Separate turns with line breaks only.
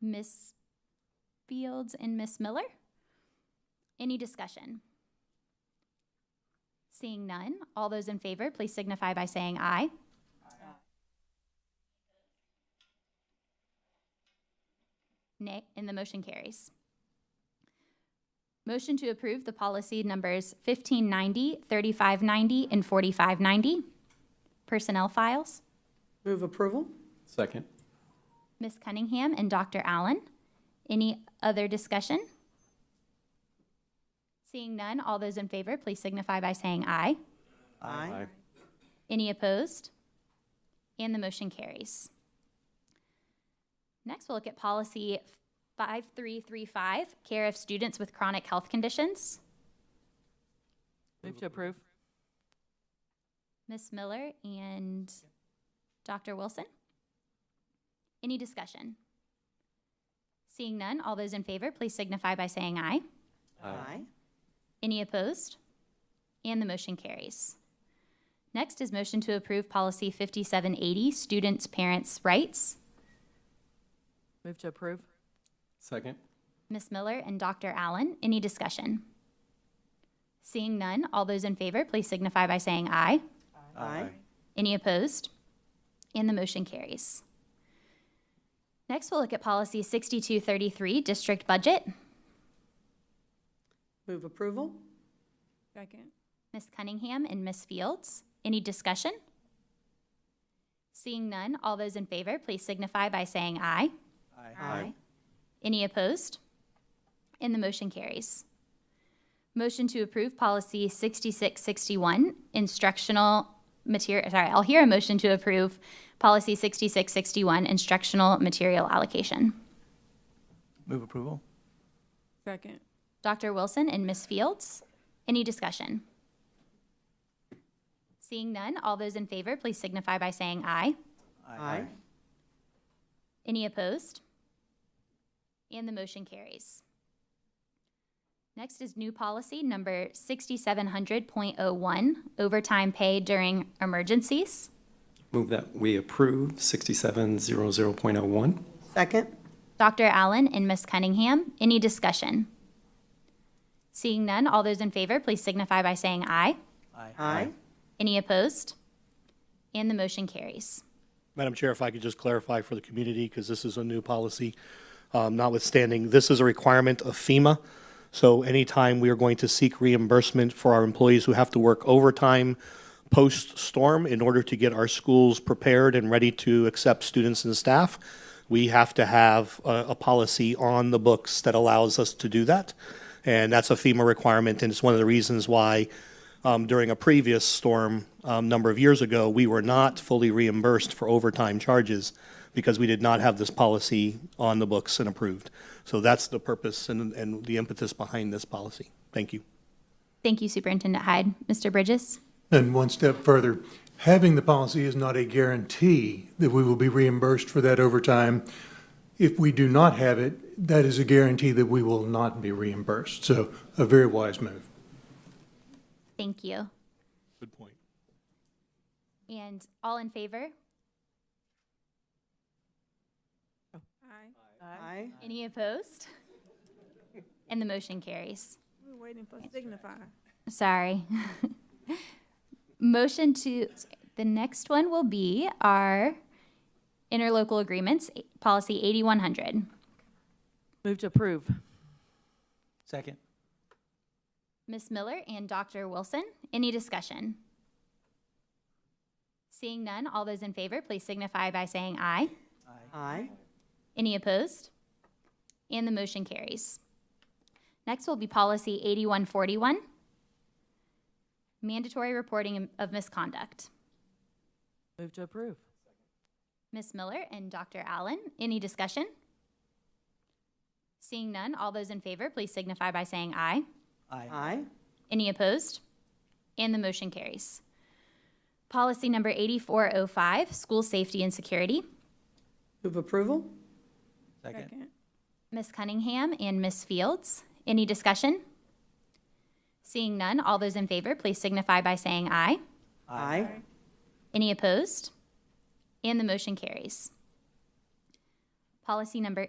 Miss Fields and Miss Miller? Any discussion? Seeing none, all those in favor, please signify by saying aye. Nay, and the motion carries. Motion to approve the policy numbers 1590, 3590, and 4590. Personnel files.
Move approval?
Second.
Ms. Cunningham and Dr. Allen. Any other discussion? Seeing none, all those in favor, please signify by saying aye.
Aye.
Any opposed? And the motion carries. Next, we'll look at policy 5335, care of students with chronic health conditions.
Move to approve.
Ms. Miller and Dr. Wilson? Any discussion? Seeing none, all those in favor, please signify by saying aye.
Aye.
Any opposed? And the motion carries. Next is motion to approve policy 5780, students' parents' rights.
Move to approve.
Second.
Ms. Miller and Dr. Allen, any discussion? Seeing none, all those in favor, please signify by saying aye.
Aye.
Any opposed? And the motion carries. Next, we'll look at policy 6233, district budget.
Move approval?
Second.
Ms. Cunningham and Ms. Fields, any discussion? Seeing none, all those in favor, please signify by saying aye.
Aye.
Any opposed? And the motion carries. Motion to approve policy 6661, instructional material, sorry, I'll hear a motion to approve policy 6661, instructional material allocation.
Move approval?
Second.
Dr. Wilson and Ms. Fields, any discussion? Seeing none, all those in favor, please signify by saying aye.
Aye.
Any opposed? And the motion carries. Next is new policy number 6700.01, overtime pay during emergencies.
Move that we approve 6700.01.
Second?
Dr. Allen and Ms. Cunningham, any discussion? Seeing none, all those in favor, please signify by saying aye.
Aye.
Any opposed? And the motion carries.
Madam Chair, if I could just clarify for the community, because this is a new policy, um, notwithstanding, this is a requirement of FEMA. So anytime we are going to seek reimbursement for our employees who have to work overtime post-storm in order to get our schools prepared and ready to accept students and staff, we have to have a, a policy on the books that allows us to do that. And that's a FEMA requirement, and it's one of the reasons why um, during a previous storm a number of years ago, we were not fully reimbursed for overtime charges because we did not have this policy on the books and approved. So that's the purpose and, and the impetus behind this policy. Thank you.
Thank you, Superintendent Hyde. Mr. Bridges?
And one step further, having the policy is not a guarantee that we will be reimbursed for that overtime. If we do not have it, that is a guarantee that we will not be reimbursed. So a very wise move.
Thank you.
Good point.
And all in favor?
Aye.
Any opposed? And the motion carries.
We're waiting for signify.
Sorry. Motion to, the next one will be our interlocal agreements, policy 8100.
Move to approve.
Second.
Ms. Miller and Dr. Wilson, any discussion? Seeing none, all those in favor, please signify by saying aye.
Aye.
Any opposed? And the motion carries. Next will be policy 8141, mandatory reporting of misconduct.
Move to approve.
Ms. Miller and Dr. Allen, any discussion? Seeing none, all those in favor, please signify by saying aye.
Aye.
Any opposed? And the motion carries. Policy number 8405, school safety and security.
Move approval?
Second.
Ms. Cunningham and Ms. Fields, any discussion? Seeing none, all those in favor, please signify by saying aye.
Aye.
Any opposed? And the motion carries. Policy number